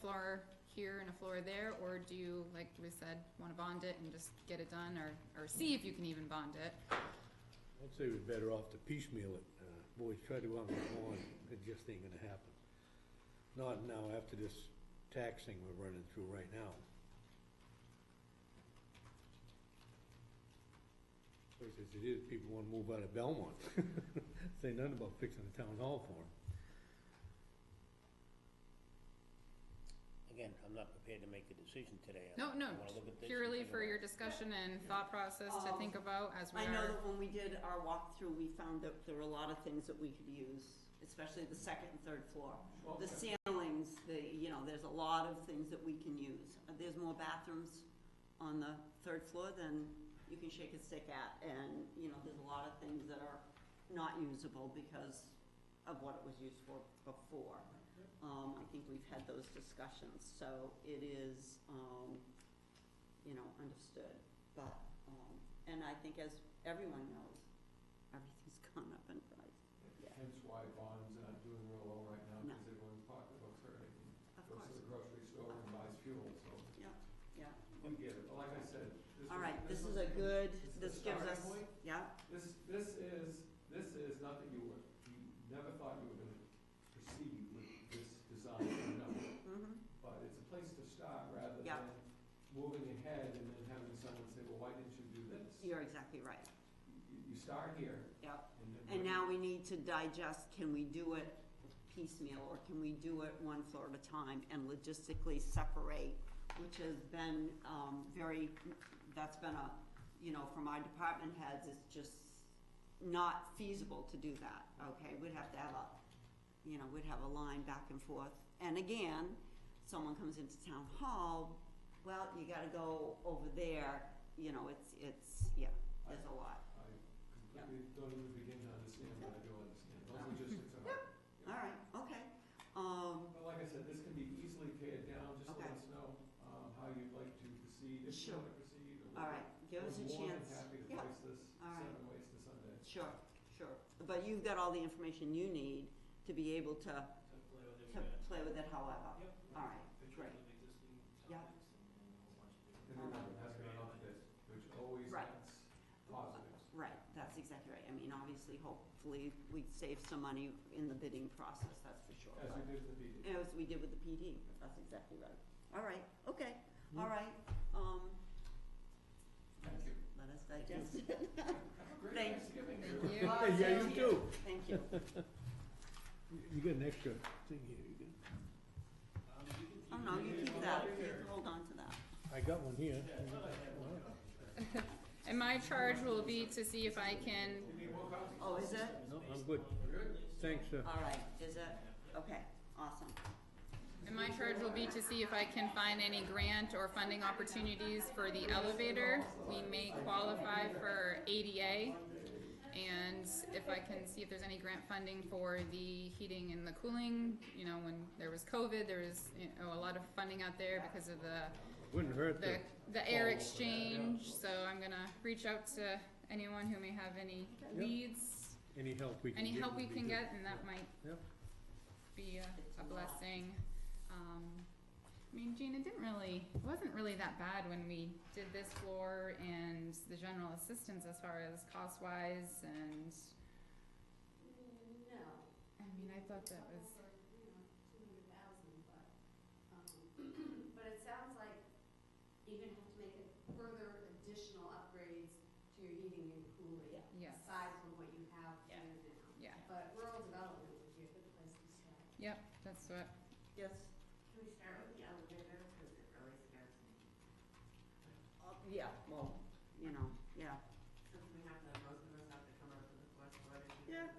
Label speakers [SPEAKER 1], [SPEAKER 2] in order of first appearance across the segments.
[SPEAKER 1] floor here and a floor there, or do you, like we said, wanna bond it and just get it done, or, or see if you can even bond it?
[SPEAKER 2] I'd say we're better off to piecemeal it. Uh, Boys, try to out with one, it just ain't gonna happen. Not now after this tax thing we're running through right now. Of course, as it is, people wanna move out of Belmont. Say nothing about fixing the town hall for 'em.
[SPEAKER 3] Again, I'm not prepared to make a decision today. I-
[SPEAKER 1] No, no,
[SPEAKER 3] I wanna look at this and
[SPEAKER 1] purely
[SPEAKER 3] think
[SPEAKER 1] for
[SPEAKER 3] about
[SPEAKER 1] your
[SPEAKER 3] it.
[SPEAKER 1] discussion and thought process to
[SPEAKER 4] Um,
[SPEAKER 1] think about as we
[SPEAKER 4] I know
[SPEAKER 1] are,
[SPEAKER 4] that when we did our walkthrough, we found that there were a lot of things that we could use, especially the second and third floor. The ceilings, the, you know, there's a lot of things that we can use. Uh, There's more bathrooms on the third floor than you can shake a stick at. And, you know, there's a lot of things that are not usable because of what it was used for before. Um, I think we've had those discussions, so it is, um, you know, understood. But, um, and I think as everyone knows, everything's gone up in price. Yeah.
[SPEAKER 5] Hence why bonds are not doing real well right now,
[SPEAKER 4] No.
[SPEAKER 5] because everyone's pocketbook's hurting.
[SPEAKER 4] Of
[SPEAKER 5] Goes to
[SPEAKER 4] course,
[SPEAKER 5] the grocery store and buys fuel, so
[SPEAKER 4] yeah.
[SPEAKER 5] we get it, but like I said, this
[SPEAKER 4] All
[SPEAKER 5] was-
[SPEAKER 4] right, this is
[SPEAKER 5] was-
[SPEAKER 4] a good,
[SPEAKER 5] is the
[SPEAKER 4] this gives
[SPEAKER 5] starting
[SPEAKER 4] us,
[SPEAKER 5] point.
[SPEAKER 4] yeah,
[SPEAKER 5] This, this is, this is not that you were, you never thought you were gonna proceed with this design, no,
[SPEAKER 4] mhm,
[SPEAKER 5] but it's a place to start rather
[SPEAKER 4] Yeah.
[SPEAKER 5] than moving ahead and then having someone say, well, why didn't you do this? You,
[SPEAKER 4] you're exactly right,
[SPEAKER 5] you start here
[SPEAKER 4] yeah.
[SPEAKER 5] and then.
[SPEAKER 4] And now we need to digest, can we do it piecemeal, or can we do it one floor at a time and logistically separate? Which has been, um, very, that's been a, you know, from our department heads, it's just not feasible to do that, okay? We'd have to have a, you know, we'd have a line back and forth. And again, someone comes into town hall, well, you gotta go over there, you know, it's, it's, yeah, there's a lot.
[SPEAKER 5] I completely don't even begin to understand, but I do understand, those logistics are.
[SPEAKER 4] All right, okay, um,
[SPEAKER 5] But like I said, this can be easily pared down, just let
[SPEAKER 4] Okay.
[SPEAKER 5] us know, um, how you'd like to proceed, if you
[SPEAKER 4] Sure.
[SPEAKER 5] want to proceed, or.
[SPEAKER 4] all right, give us a
[SPEAKER 5] We're more than
[SPEAKER 4] chance.
[SPEAKER 5] happy to
[SPEAKER 4] Yeah,
[SPEAKER 5] place this
[SPEAKER 4] all right.
[SPEAKER 5] seven ways to Sunday.
[SPEAKER 4] Sure, sure, but you've got all the information you need to be able to,
[SPEAKER 6] to
[SPEAKER 4] to
[SPEAKER 6] play with it, uh,
[SPEAKER 4] play with it however.
[SPEAKER 6] Yep.
[SPEAKER 4] All right,
[SPEAKER 6] pictures
[SPEAKER 4] great,
[SPEAKER 6] of existing
[SPEAKER 4] Yeah.
[SPEAKER 6] topics and and a whole bunch of different.
[SPEAKER 5] And remember, that's going on this, which always
[SPEAKER 4] Right.
[SPEAKER 5] adds positives.
[SPEAKER 4] right, that's exactly right, I mean, obviously, hopefully, we save some money in the bidding process, that's for sure.
[SPEAKER 5] As we did with the meeting.
[SPEAKER 4] As we did with the PD, that's exactly right, all right, okay, all right, um.
[SPEAKER 5] Hmm. Thank you.
[SPEAKER 4] Let us digest it,
[SPEAKER 5] Have a great
[SPEAKER 4] Thank-
[SPEAKER 5] Thanksgiving,
[SPEAKER 1] you.
[SPEAKER 5] everyone.
[SPEAKER 2] Yeah, you
[SPEAKER 4] Thank you.
[SPEAKER 2] do.
[SPEAKER 4] thank you.
[SPEAKER 2] You- You got an extra thing here, you got,
[SPEAKER 6] Um, you can
[SPEAKER 4] Oh,
[SPEAKER 6] keep
[SPEAKER 4] no,
[SPEAKER 6] it
[SPEAKER 4] you
[SPEAKER 6] in
[SPEAKER 4] keep
[SPEAKER 6] your
[SPEAKER 4] that,
[SPEAKER 6] pocket.
[SPEAKER 4] You hold on to that.
[SPEAKER 2] I got one here.
[SPEAKER 6] Yeah, well, I have one.
[SPEAKER 1] and my charge will be to see if I can
[SPEAKER 5] You need more coffee?
[SPEAKER 4] Oh, is it?
[SPEAKER 2] No, I'm good. Thanks, uh,
[SPEAKER 4] All right, is it? Okay, awesome.
[SPEAKER 1] And my charge will be to see if I can find any grant or funding opportunities for the elevator. We may qualify for ADA. And if I can see if there's any grant funding for the heating and the cooling, you know, when there was COVID, there was, you know, a lot of funding out there because of the,
[SPEAKER 2] wouldn't hurt
[SPEAKER 1] the,
[SPEAKER 2] to.
[SPEAKER 1] the air exchange. So I'm gonna reach out to anyone who may have any leads,
[SPEAKER 2] Any help we can get.
[SPEAKER 1] any help we
[SPEAKER 2] would be
[SPEAKER 1] can
[SPEAKER 2] good.
[SPEAKER 1] get, and that might
[SPEAKER 2] Yep.
[SPEAKER 1] be a, a
[SPEAKER 4] lot.
[SPEAKER 1] blessing. Um, I mean, Gina it didn't really, it wasn't really that bad when we did this floor and the general assistance as far as cost wise and,
[SPEAKER 4] No.
[SPEAKER 1] I mean, I thought that was,
[SPEAKER 7] Over, you know, two hundred thousand, but, um, but it sounds like you're gonna have to make a- further additional upgrades to your heating and cooling.
[SPEAKER 1] yes,
[SPEAKER 7] Aside from what you have
[SPEAKER 4] Yeah.
[SPEAKER 7] here now.
[SPEAKER 1] yeah,
[SPEAKER 7] But rural development would be a good place to start.
[SPEAKER 1] yep, that's what,
[SPEAKER 4] Yes,
[SPEAKER 7] Can we start with the elevator, because it really scares me,
[SPEAKER 4] uh, yeah, well, you know, yeah.
[SPEAKER 7] since we have the, most of us have to come up to the fourth floor to do
[SPEAKER 4] Yeah.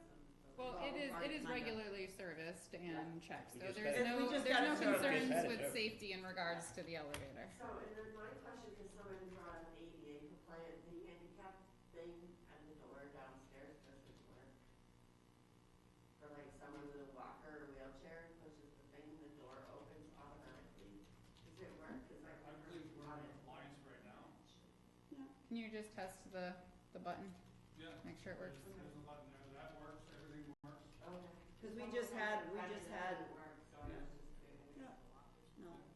[SPEAKER 1] well, it is, it is
[SPEAKER 4] Well, right,
[SPEAKER 1] regularly serviced and checked, so
[SPEAKER 3] We just
[SPEAKER 1] there's
[SPEAKER 4] had it. We
[SPEAKER 1] no,
[SPEAKER 4] just had it
[SPEAKER 1] there's no
[SPEAKER 4] serviced.
[SPEAKER 1] concerns
[SPEAKER 3] Just had it
[SPEAKER 1] with
[SPEAKER 3] serviced.
[SPEAKER 1] safety in regards to the elevator.
[SPEAKER 7] So, and then my question, because someone brought up ADA compliant, the handicap thing at the door downstairs doesn't work. For like someone with a walker or wheelchair pushes the thing, the door opens automatically. Does it work? Because I've
[SPEAKER 6] I
[SPEAKER 7] never
[SPEAKER 6] believe we're
[SPEAKER 7] got
[SPEAKER 6] in
[SPEAKER 7] it.
[SPEAKER 6] compliance right now.
[SPEAKER 1] Can you just test the, the button,
[SPEAKER 6] Yeah.
[SPEAKER 1] make sure it works?
[SPEAKER 6] There's there's a button there, that works, everything works.
[SPEAKER 7] Okay.
[SPEAKER 4] Because we just had, we just had